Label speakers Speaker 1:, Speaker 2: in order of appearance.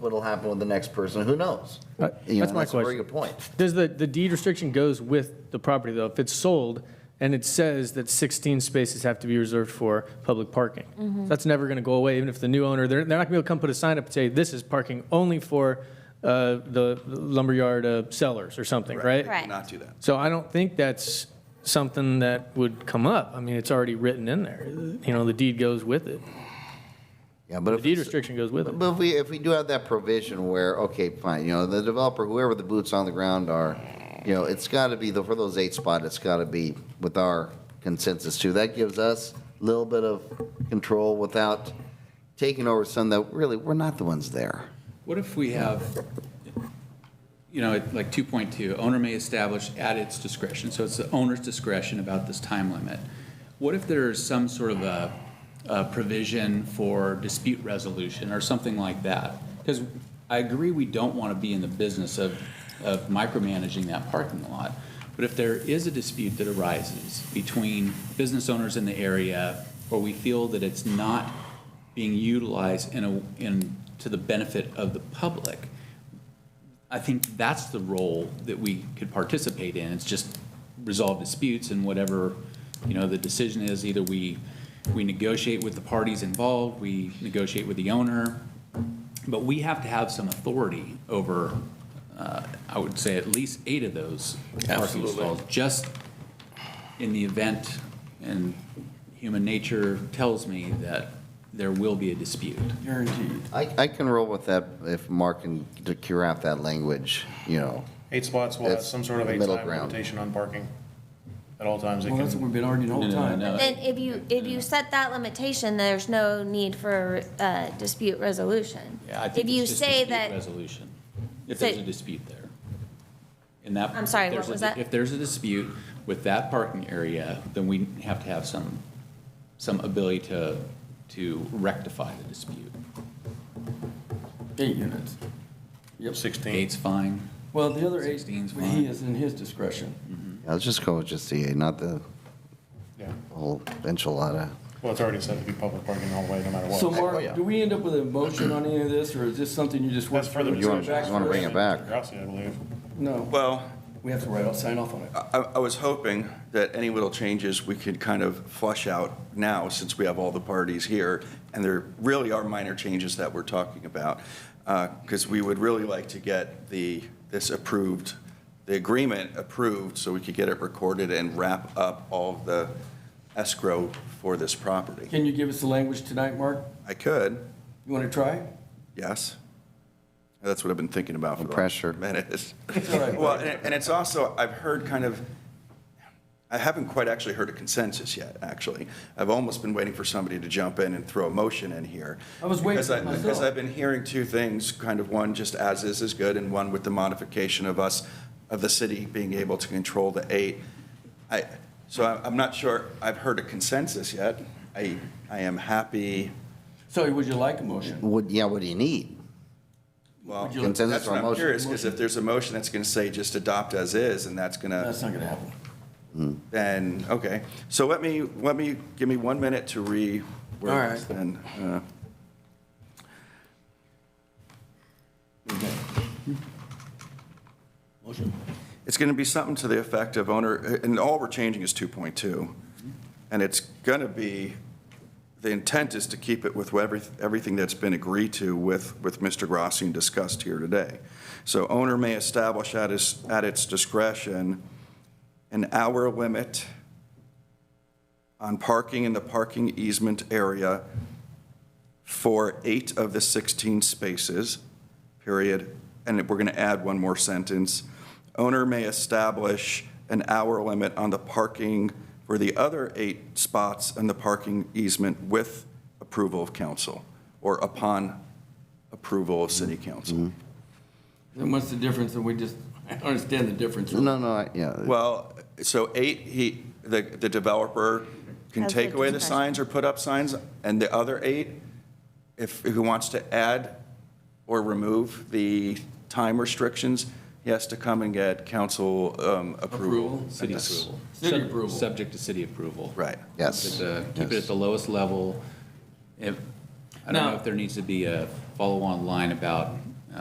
Speaker 1: what'll happen with the next person, who knows?
Speaker 2: Uh,
Speaker 1: You know,
Speaker 2: that's my
Speaker 1: a very
Speaker 2: question.
Speaker 1: good point.
Speaker 2: Does the, the deed restriction goes with the property, though? If it's sold and it says that 16 spaces have to be reserved for public parking, that's never going to go away, even if the new owner, they're, they're not going to be able to come put a sign up and say, this is parking only for uh, the lumberyard uh, sellers or something, right?
Speaker 3: Correct.
Speaker 4: Not do that.
Speaker 2: So I don't think that's something that would come up. I mean, it's already written in there. You know, the deed goes with it.
Speaker 1: Yeah, but
Speaker 2: The
Speaker 1: if.
Speaker 2: deed
Speaker 1: it's-
Speaker 2: restriction goes with it.
Speaker 1: But if we, if we do have that provision where, okay, fine, you know, the developer, whoever the boots on the ground are, you know, it's got to be, the for those eight spot, it's got to be with our consensus too. That gives us a little bit of control without taking over some that really, we're not the ones there.
Speaker 4: What if we have, you know, like 2.2, owner may establish at its discretion, so it's the owner's discretion about this time limit. What if there's some sort of a, a provision for dispute resolution or something like that? Because I agree, we don't want to be in the business of, of micromanaging that parking lot. But if there is a dispute that arises between business owners in the area, or we feel that it's not being utilized in a, in, to the benefit of the public, I think that's the role that we could participate in. It's just resolve disputes and whatever, you know, the decision is, either we, we negotiate with the parties involved, we negotiate with the owner. But we have to have some authority over, uh, I would say, at least eight of those parking stalls. Just in the event, and human nature tells me that there will be a dispute.
Speaker 1: I, I can roll with that if Mark can cure out that language, you know.
Speaker 5: Eight spots will have
Speaker 1: That's
Speaker 5: some sort of
Speaker 1: the
Speaker 5: eight
Speaker 1: middle
Speaker 5: time
Speaker 1: ground.
Speaker 5: limitation on parking at all times. It
Speaker 6: Well, that's what
Speaker 5: can,
Speaker 6: we've been arguing all the
Speaker 4: No, no,
Speaker 6: time.
Speaker 4: no, no.
Speaker 3: Then if you, if you set that limitation, there's no need for uh, dispute resolution.
Speaker 4: Yeah, I think
Speaker 3: If you
Speaker 4: it's just
Speaker 3: say
Speaker 4: dispute
Speaker 3: that,
Speaker 4: Resolution, if
Speaker 3: So-
Speaker 4: there's a dispute there. In that.
Speaker 3: I'm sorry,
Speaker 4: if there's
Speaker 3: what
Speaker 4: a-
Speaker 3: was that?
Speaker 4: If there's a dispute with that parking area, then we have to have some, some ability to, to rectify the dispute.
Speaker 6: Eight units. Yep.
Speaker 5: sixteen.
Speaker 4: Eight's fine.
Speaker 6: Well, the other eight,
Speaker 4: 16 is
Speaker 6: he
Speaker 4: fine.
Speaker 6: is in his discretion.
Speaker 1: Yeah, Let's just go with just the, eight, not the
Speaker 5: Yeah.
Speaker 1: whole enchilada.
Speaker 5: Well, it's already said to be public parking the whole way, no matter what.
Speaker 6: So
Speaker 1: oh,
Speaker 6: Mark,
Speaker 1: yeah.
Speaker 6: do we end up with a motion on any of this, or is this something you just work
Speaker 5: That's further
Speaker 6: through?
Speaker 1: You wanna-
Speaker 5: discussion.
Speaker 1: you wanna bring it back?
Speaker 5: Degrassi, I believe.
Speaker 6: No,
Speaker 7: Well,
Speaker 6: we have to write, off sign off on it.
Speaker 7: I, I was hoping that any little changes we could kind of flush out now, since we have all the parties here, and there really are minor changes that we're talking about, because we would really like to get the, this approved, the agreement approved, so we could get it recorded and wrap up all of the escrow for this property.
Speaker 6: Can you give us the language tonight, Mark?
Speaker 7: I could,
Speaker 6: You want to try?
Speaker 7: yes. That's what I've been thinking about for the last
Speaker 1: Pressure.
Speaker 7: minute.
Speaker 6: It's all right.
Speaker 7: Well, and and it's also, I've heard kind of, I haven't quite actually heard a consensus yet, actually. I've almost been waiting for somebody to jump in and throw a motion in here.
Speaker 6: I was waiting
Speaker 7: Because I-
Speaker 6: for myself.
Speaker 7: Because I've been hearing two things, kind of one just as is is good, and one with the modification of us, of the city being able to control the eight. I, so I- I'm not sure I've heard a consensus yet. I, I am happy,
Speaker 6: So would you like a motion?
Speaker 1: Would, yeah, what do you need?
Speaker 7: well,
Speaker 6: Would you-
Speaker 1: Consensus
Speaker 7: that's
Speaker 1: or
Speaker 7: what I'm
Speaker 1: motion?
Speaker 7: curious, because if there's a motion that's going to say just adopt as is, and that's going to.
Speaker 6: That's not going to happen.
Speaker 7: Then, okay, so let me, let me, give me one minute to re.
Speaker 6: All right.
Speaker 7: Then, uh,
Speaker 6: Motion.
Speaker 7: it's gonna be something to the effect of owner, and all we're changing is 2.2. And it's gonna be, the intent is to keep it with whatever, everything that's been agreed to with, with Mr. Grassi and discussed here today. So owner may establish at its, at its discretion an hour limit on parking in the parking easement area for eight of the 16 spaces, period. And we're going to add one more sentence. Owner may establish an hour limit on the parking for the other eight spots in the parking easement with approval of council or upon approval of city council.
Speaker 6: Then what's the difference? And we just, I don't understand the difference.
Speaker 1: No, no, I- yeah.
Speaker 7: Well, so eight, he, the, the developer can
Speaker 3: Has
Speaker 7: take
Speaker 3: the
Speaker 7: away the
Speaker 3: discretion.
Speaker 7: signs or put up signs, and the other eight, if, if he wants to add or remove the time restrictions, he has to come and get council um, approval.
Speaker 6: Approval.
Speaker 4: City
Speaker 7: Yes.
Speaker 4: approval.
Speaker 6: City
Speaker 4: Sub-
Speaker 6: approval.
Speaker 4: Subject to city approval.
Speaker 7: Right.
Speaker 1: Yes.
Speaker 4: Keep it at the- Keep it
Speaker 1: Yes.
Speaker 4: at the lowest level. If, I don't know
Speaker 6: Now-
Speaker 4: if there needs to be a follow-on line about